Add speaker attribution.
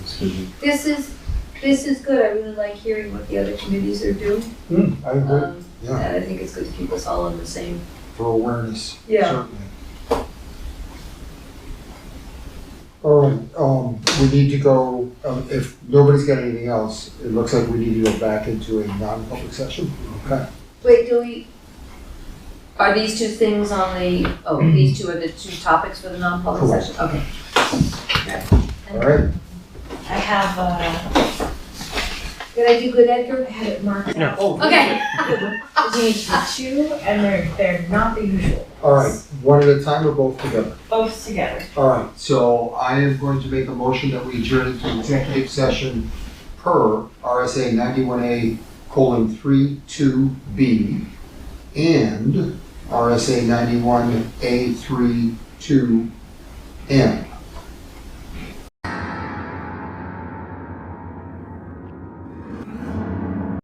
Speaker 1: decision.
Speaker 2: This is, this is good, I really like hearing what the other committees are doing.
Speaker 1: Hmm, I agree,
Speaker 2: Um,
Speaker 1: yeah,
Speaker 2: And I think it's good to keep us all on the same.
Speaker 1: for awareness,
Speaker 2: Yeah.
Speaker 1: certainly. All right, um, we need to go, um, if nobody's got anything else, it looks like we need to go back into a non-public session, okay?
Speaker 2: Wait, do we, are these two things on the, oh, these two are the two topics for the non-public
Speaker 1: Mm-hmm. Correct.
Speaker 2: session? Okay.
Speaker 1: All right,
Speaker 3: I have, uh,
Speaker 2: Did I do good, Edgar?
Speaker 3: had it marked out.
Speaker 2: Okay.
Speaker 3: There's only two, and they're, they're not the usual.
Speaker 1: all right, one at a time or both together?
Speaker 3: Both together.
Speaker 1: All right, so I am going to make a motion that we adjourn to executive session per RSA ninety-one A colon three two B and RSA ninety-one A three two M.